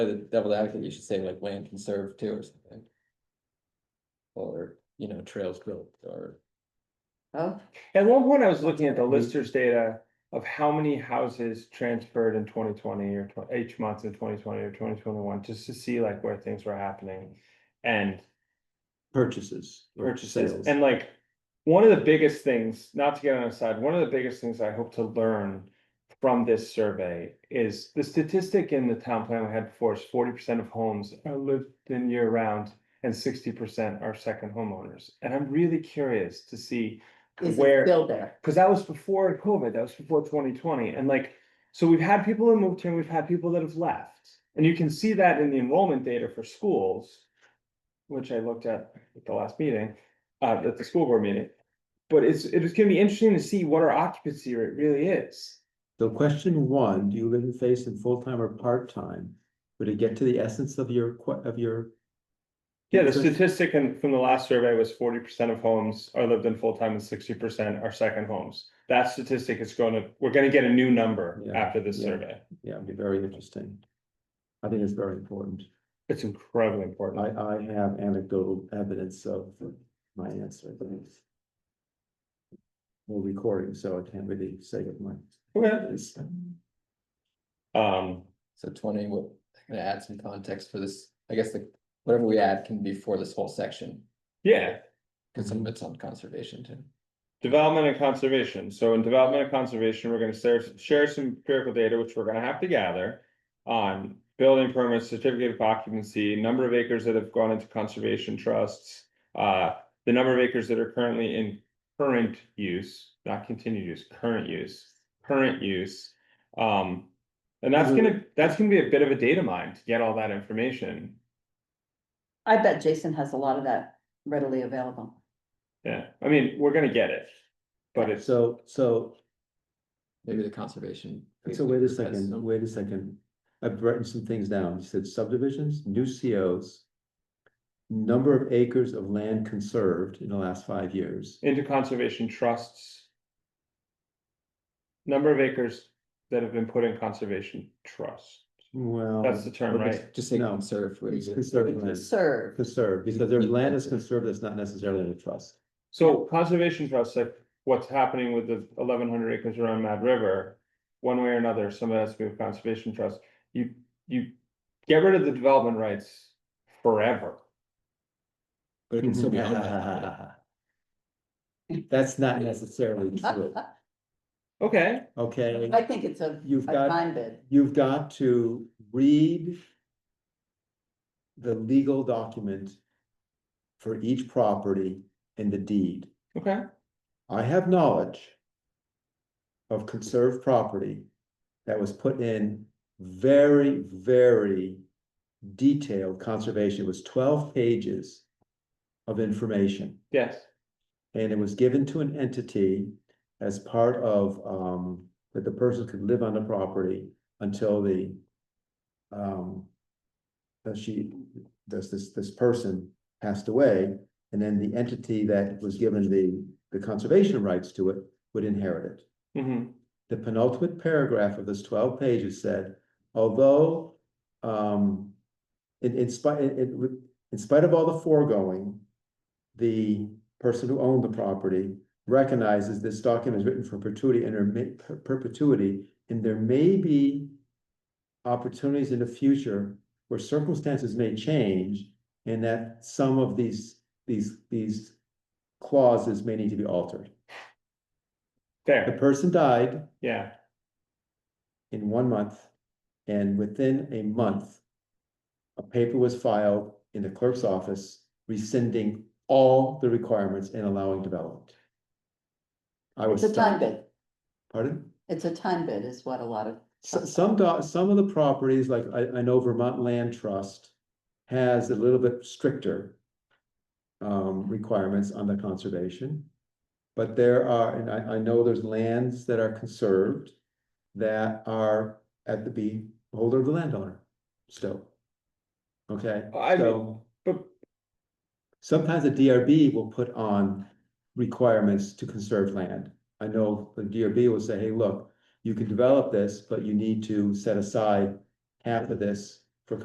the devil's advocate, you should say like land conserved too or something. Or, you know, trails built or. Oh, At one point, I was looking at the Mm-hmm. listers data of how many houses transferred in twenty twenty or tw- each month in twenty twenty or twenty twenty-one, just to see like where things were happening. And purchases. or purchases, sales. and like, one of the biggest things, not to get on a side, one of the biggest things I hope to learn. From this survey is the statistic in the town plan we had before is forty percent of homes are lived in year round. And sixty percent are second homeowners, and I'm really curious to see is it Where- still there? because that was before COVID, that was before twenty twenty, and like, so we've had people that moved here, and we've had people that have left. And you can see that in the enrollment data for schools, which I looked at at the last meeting, uh, at the school board meeting. But it's, it was gonna be interesting to see what our occupancy rate really is. So question one, do you live in face and full-time or part-time? But to get to the essence of your que- of your. Yeah, the Because- statistic in, from the last survey was forty percent of homes are lived in full-time and sixty percent are second homes. That statistic is gonna, we're gonna get a new number Yeah, after this yeah. survey. Yeah, it'd be very interesting. I think it's very important. It's incredibly important. I I have anecdotal evidence of my answer. but it's- We're recording, so I can't really say it much. Okay. Um, So twenty, we're gonna add some context for this, I guess the, whatever we add can be for this whole section, yeah, cause Mm-hmm. some of it's on conservation too. development and conservation. So in development and conservation, we're gonna share, share some empirical data, which we're gonna have to gather. On building permits, certificate of occupancy, number of acres that have gone into conservation trusts. Uh, the number of acres that are currently in current use, not continued use, current use, current use. Um, and that's gonna, that's gonna be a bit of a data mine to get all that information. I bet Jason has a lot of that readily available. Yeah, I mean, we're gonna get it. But it's, So so Maybe the conservation. So wait a Facebook has second, some- wait a second. I've written some things down. You said subdivisions, new COs. Number of acres of land conserved in the last five years. into conservation trusts. Number of acres that have been put in conservation trust. Well, That's the term, right? Just say No. conserve. would it's be- conserved land, Serve. conserved, because there's land is conserved that's not necessarily in a trust. So conservation trusts, like what's happening with the eleven hundred acres around Mad River. One way or another, some of that's moved conservation trust. You, you get rid of the development rights forever. But it can still be owned by somebody. That's not necessarily true, Okay, okay? I think it's a, You've a got- fine bid. you've got to read the legal document for each property and the deed. okay. I have knowledge of conserved property that was put in very, very detailed conservation. It was twelve pages of information. Yes, And it was given to an entity as part of, um, that the person could live on the property until the. Um. that she, this, this, this person passed away, and then the entity that was given the, the conservation rights to it would inherit it. hmm The penultimate paragraph of this twelve pages said, although, um, in, in spite, in, in- in spite of all the foregoing, the person who owned the property recognizes this document is written for perpetuity and there may- per- perpetuity, and there may be opportunities in the future where circumstances may change and that some of these, these, these clauses may need to be altered. The fair, person died, yeah, in one month. And within a month, a paper was filed in the clerk's office rescinding all the requirements and allowing development. I was. It's a time stunned. bid. Pardon? It's a time bid is what a lot of, So- Some, do- some of the properties, like I, I know Vermont Land Trust has a little bit stricter um, requirements on the conservation. But there are, and I, I know there's lands that are conserved that are at the beholder of the landowner still. Okay, I mean- so but sometimes the DRB will put on requirements to conserve land. I know the DRB will say, hey, look, you can develop this, but you need to set aside half of this